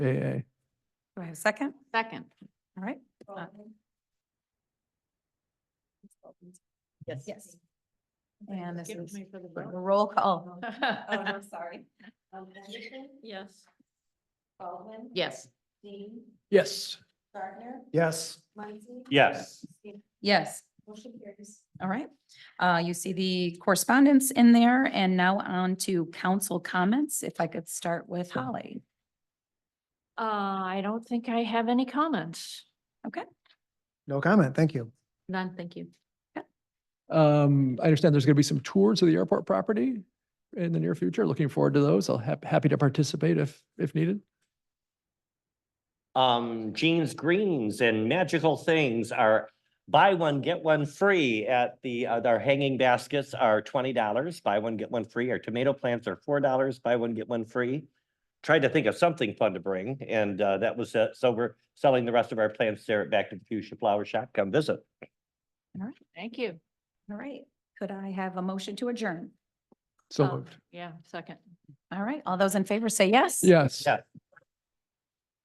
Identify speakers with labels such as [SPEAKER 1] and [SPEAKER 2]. [SPEAKER 1] AA.
[SPEAKER 2] Do I have a second?
[SPEAKER 3] Second.
[SPEAKER 2] All right. Uh,
[SPEAKER 3] Yes.
[SPEAKER 2] Yes. And this is a roll call.
[SPEAKER 3] Oh, I'm sorry. Um, Yes. Yes.
[SPEAKER 1] Yes. Yes.
[SPEAKER 4] Yes.
[SPEAKER 2] Yes. All right. Uh, you see the correspondence in there and now on to council comments. If I could start with Holly.
[SPEAKER 3] Uh, I don't think I have any comments.
[SPEAKER 5] No comment, thank you.
[SPEAKER 3] None, thank you.
[SPEAKER 1] Um, I understand there's going to be some tours of the airport property in the near future. Looking forward to those. I'll hap- happy to participate if, if needed.
[SPEAKER 4] Um, Jeans Greens and Magical Things are buy one, get one free at the, uh, our hanging baskets are twenty dollars, buy one, get one free. Our tomato plants are four dollars, buy one, get one free. Tried to think of something fun to bring and, uh, that was, uh, so we're selling the rest of our plants there at Back to the Fuchsia Flower Shop. Come visit.
[SPEAKER 3] Thank you.
[SPEAKER 2] All right. Could I have a motion to adjourn?
[SPEAKER 1] So
[SPEAKER 3] Um,
[SPEAKER 1] moved.
[SPEAKER 3] Yeah, second.
[SPEAKER 2] All right. All those in favor say yes.
[SPEAKER 1] Yes.
[SPEAKER 4] Yeah.